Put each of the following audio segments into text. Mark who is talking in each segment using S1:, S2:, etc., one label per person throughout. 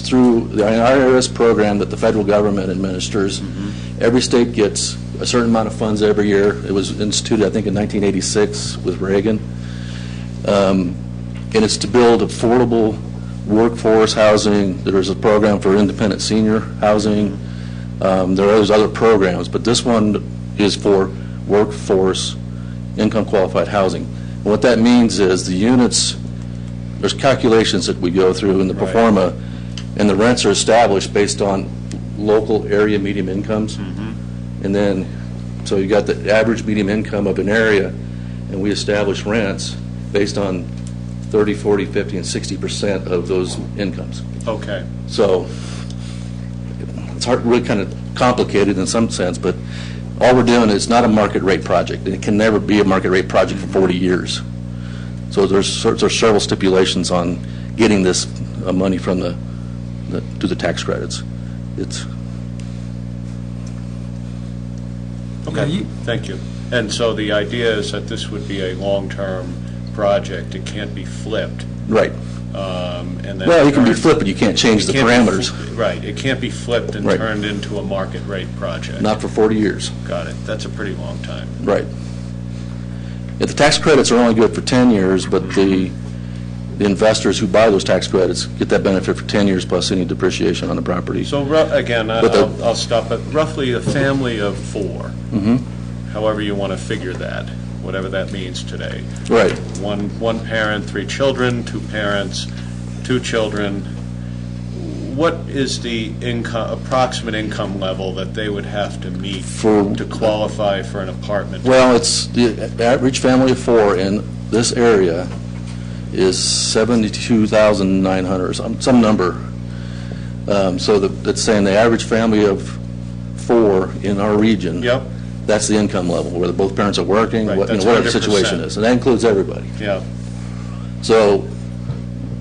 S1: through the IRS program that the federal government administers. Every state gets a certain amount of funds every year. It was instituted, I think, in 1986 with Reagan. Um, And it's to build affordable workforce housing. There is a program for independent senior housing. Um, There are those other programs, but this one is for workforce income qualified housing. And what that means is the units, there's calculations that we go through in the pro
S2: Right.
S1: forma, and the rents are established based on local area medium incomes. And then, so you got the average medium income of an area, and we establish rents based on 30, 40, 50, and 60% of those incomes.
S2: Okay,
S1: So it's hard, really kind of complicated in some sense, but all we're doing is not a market rate project. and It can never be a market rate project for 40 years. So there's cer- there's several stipulations on getting this uh, money from the, the- to the tax credits. It's,
S3: Yeah,
S2: okay,
S3: you-
S2: thank you. And so the idea is that this would be a long-term project, it can't be flipped,
S1: right.
S2: um, and then...
S1: Well, you can be
S2: turned-
S1: flipped, but you can't change the
S2: It can't be
S1: parameters,
S2: fl- Right, it can't be flipped and
S1: Right.
S2: turned into a market rate project.
S1: not for 40 years.
S2: Got it, that's a pretty long time.
S1: Right. Yeah, the tax credits are only good for 10 years, but the the investors who buy those tax credits get that benefit for 10 years plus any depreciation on the property.
S2: So ru- again, I-
S1: But the-
S2: I'll I'll stop, at roughly a family of 4
S1: Mm-hmm.
S2: however you want to figure that, whatever that means today.
S1: Right.
S2: One, one parent, three children, two parents, two children. What is the income, approximate income level that they would have to meet
S1: For-
S2: to qualify for an apartment?
S1: Well, it's, the average family of four in this area is 72,900, or some, some number. Um, So the- that's saying the average family of four in our region.
S2: Yep,
S1: That's the income level, whether both parents are working,
S2: Right,
S1: what- you know,
S2: that's
S1: whatever the situation
S2: 100%.
S1: is. And that includes everybody.
S2: yeah,
S1: So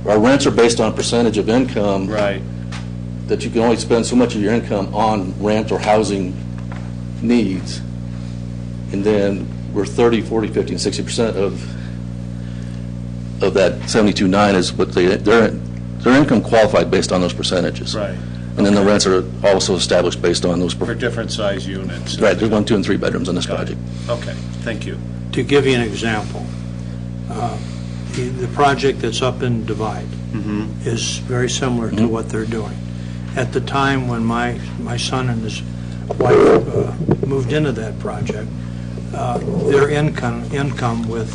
S1: our rents are based on percentage of income,
S2: right,
S1: that you can only spend so much of your income on rent or housing needs. And then we're 30, 40, 50, and 60% of, of that 72.9 is what they, their, their income qualified based on those percentages.
S2: right,
S1: And then the rents are also established based on those, per-
S2: for different size units.
S1: right, there's one, two, and three bedrooms in this
S2: Got it.
S1: project.
S2: Okay, thank you.
S3: To give you an example, uh, the the project that's up in Divide is very similar to what they're doing. At the time when my, my son and his wife uh, moved into that project, uh, their income, income with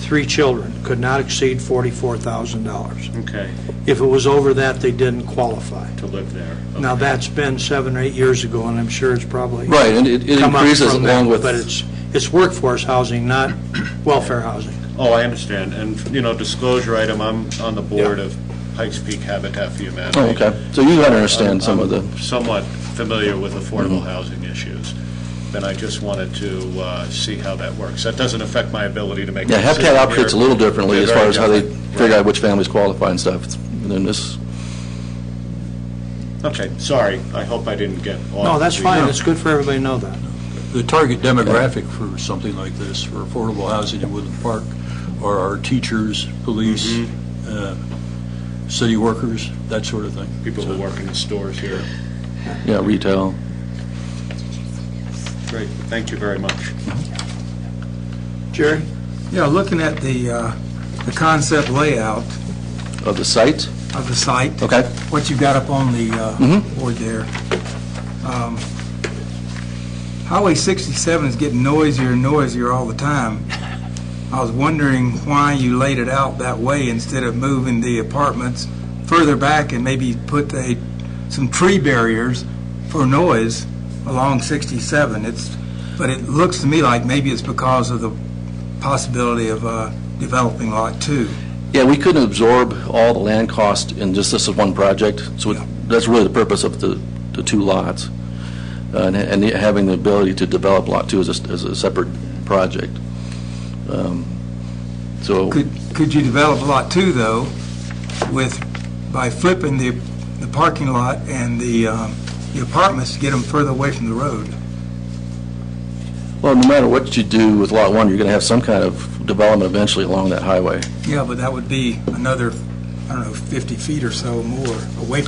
S3: three children could not exceed $44,000.
S2: Okay,
S3: If it was over that, they didn't qualify.
S2: to live there.
S3: Now,
S2: Okay.
S3: that's been seven or eight years ago, and I'm sure it's probably
S1: Right, and it it
S3: come up
S1: increases
S3: from that,
S1: along with.
S3: But it's, it's workforce housing, not welfare housing.
S2: Oh, I understand, and, you know, disclosure item, I'm on the board of Pikes Peak Habitat for Humanity.
S1: Oh, okay. So you understand some of the.
S2: I'm Somewhat familiar with affordable housing issues, and I just wanted to uh, see how that works. That doesn't affect my ability to make a
S1: Yeah,
S2: decision
S1: Habitat operates a
S2: here.
S1: little differently
S2: They're
S1: as far
S2: very
S1: as how they
S2: different.
S1: figure
S2: Right.
S1: out which families qualify and stuff. It's- And then this,
S2: Okay, sorry, I hope I didn't get off.
S3: No, that's
S2: the- uh,
S3: fine, it's good for everybody to know that.
S4: The target demographic for something like this, for affordable housing in Woodland Park, are our teachers, police,
S2: Mm-hmm.
S4: uh, city workers, that sort of thing.
S2: People
S4: So-
S2: who work in the stores here.
S1: yeah, retail.
S2: Great, thank you very much.
S3: Jerry?
S5: Yeah, looking at the, uh, the concept layout
S1: Of the site?
S5: of the site.
S1: Okay.
S5: What you've got up on the uh,
S1: Mhm.
S5: board there. Um, Highway 67 is getting noisier and noisier all the time. I was wondering why you laid it out that way instead of moving the apartments further back and maybe put a, some tree barriers for noise along 67. It's, but it looks to me like maybe it's because of the possibility of uh, developing Lot 2.
S1: Yeah, we couldn't absorb all the land cost in just this one project, so it- that's really the purpose of the, the two lots. Uh, And, and having the ability to develop Lot Two as a, as a separate project. Um, So,
S5: Could, could you develop Lot 2, though, with, by flipping the, the parking lot and the um, the apartments to get them further away from the road?
S1: well, no matter what you do with Lot One, you're gonna have some kind of development eventually along that highway.
S5: Yeah, but that would be another, I don't know, 50 feet or so more away from